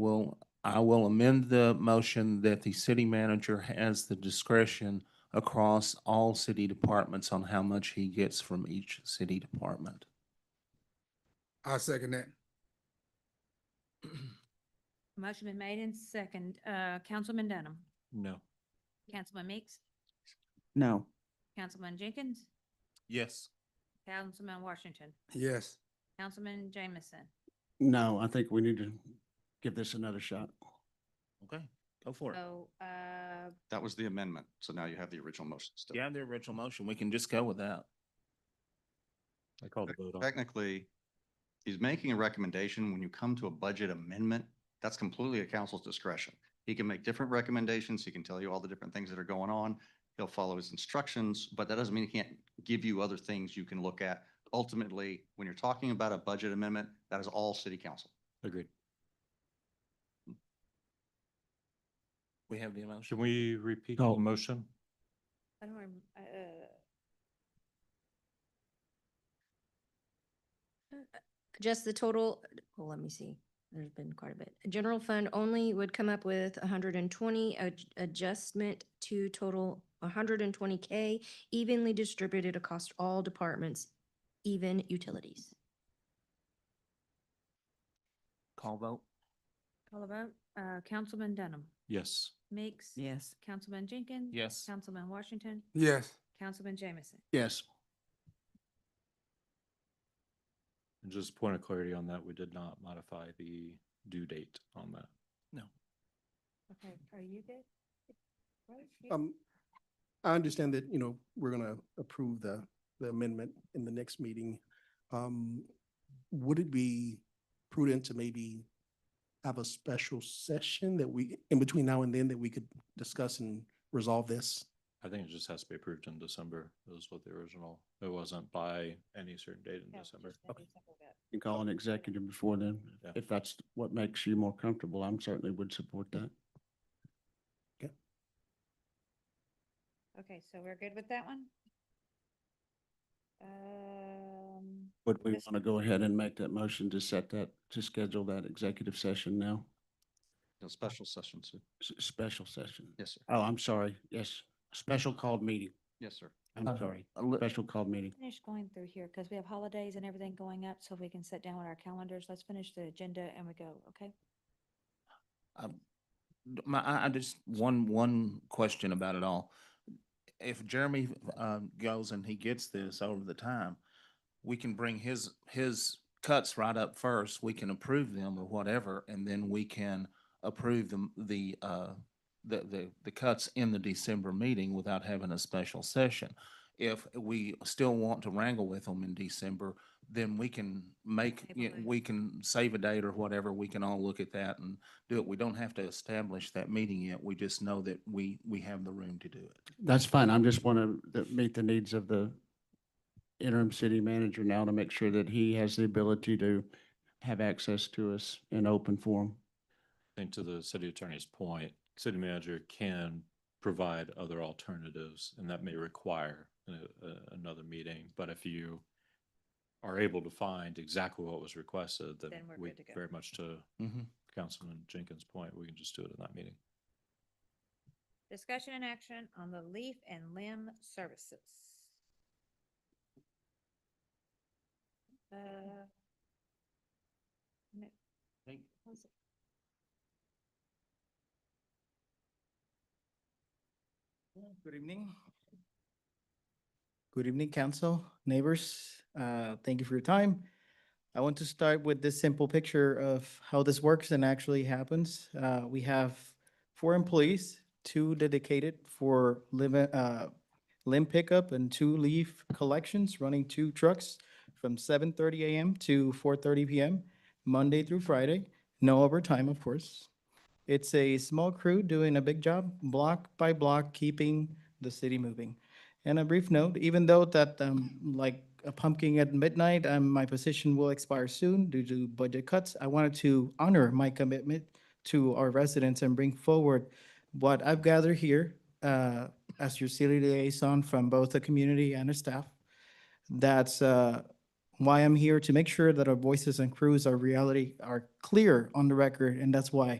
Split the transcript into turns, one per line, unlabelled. Will, I will amend the motion that the city manager has the discretion across all city departments on how much he gets from each city department.
I second that.
Motion been made and second, uh, Councilman Dunham,
No.
Councilman Meeks,
No.
Councilman Jenkins,
Yes.
Councilman Washington,
Yes,
Councilman Jameson.
No, I think we need to give this another shot.
Okay, go for it.
So, uh,
That was the amendment. So now you have the original motion still.
You have the original motion. We can just go with that.
I called the vote on. it.
Technically, he's making a recommendation. When you come to a budget amendment, that's completely at council's discretion. He can make different recommendations. He can tell you all the different things that are going on. He'll follow his instructions, but that doesn't mean he can't give you other things you can look at. Ultimately, when you're talking about a budget amendment, that is all city council.
Agreed.
We have the motion.
Should we repeat the
No.
motion?
I don't, rem- uh,
Just the total, well, let me see. There's been quite a bit. General fund only would come up with hundred and twenty, adjustment to total hundred and twenty K evenly distributed across all departments, even utilities.
Call vote?
call a vote, uh, Councilman Dunham,
Yes.
Meeks.
Yes.
Councilman Jenkins.
Yes.
Councilman Washington,
yes,
Councilman Jameson.
Yes.
And just point of clarity on that, we did not modify the due date on that.
Okay, are you good? Right, you-
Um, I understand that, you know, we're gonna approve the, the amendment in the next meeting. Um, would it be prudent to maybe have a special session that we, in between now and then, that we could discuss and resolve this?
I think it just has to be approved in December. That was what the original, it wasn't by any certain date in
no,
December.
just that December vote.
You call an executive before then,
Yeah.
if that's what makes you more comfortable, I'm certainly would support that.
Okay, so we're good with that one? Um,
But we
Yes.
want to go ahead and make that motion to set that, to schedule that executive session now,
No special session, sir.
S- special session.
Yes, sir.
Oh, I'm sorry, yes, special called meeting,
Yes, sir.
I'm sorry, special called meeting.
finish going through here because we have holidays and everything going up, so we can sit down with our calendars. Let's finish the agenda and we go, okay?
My, I, I just, one, one question about it all. If Jeremy, um, goes and he gets this over the time, we can bring his, his cuts right up first. We can approve them or whatever, and then we can approve them, the, uh, the, the, the cuts in the December meeting without having a special session. If we still want to wrangle with them in December, then we can make,
Table
you-
it.
we can save a date or whatever. We can all look at that and do it. We don't have to establish that meeting yet. We just know that we, we have the room to do it.
That's fine. I'm just want to meet the needs of the interim city manager now to make sure that he has the ability to have access to us in open form.
I think to the city attorney's point, city manager can provide other alternatives and that may require a- a- another meeting. But if you are able to find exactly what was requested, then
Then we're
we
good to go.
very much to
Mm-hmm.
Councilman Jenkins' point, we can just do it in that meeting.
Discussion and action on the leaf and limb services. Uh,
Good evening. Good evening, council, neighbors. Uh, Thank you for your time. I want to start with this simple picture of how this works and actually happens. Uh, We have four employees, two dedicated for limb, uh, limb pickup and two leaf collections, running two trucks from seven thirty AM to four thirty PM, Monday through Friday, no overtime, of course. It's a small crew doing a big job, block by block, keeping the city moving. And a brief note, even though that um, like a pumpkin at midnight, um, my position will expire soon due to budget cuts, I wanted to honor my commitment to our residents and bring forward what I've gathered here uh, as your city liaison from both the community and the staff. That's uh, why I'm here to make sure that our voices and crews, our reality are clear on the record, and that's why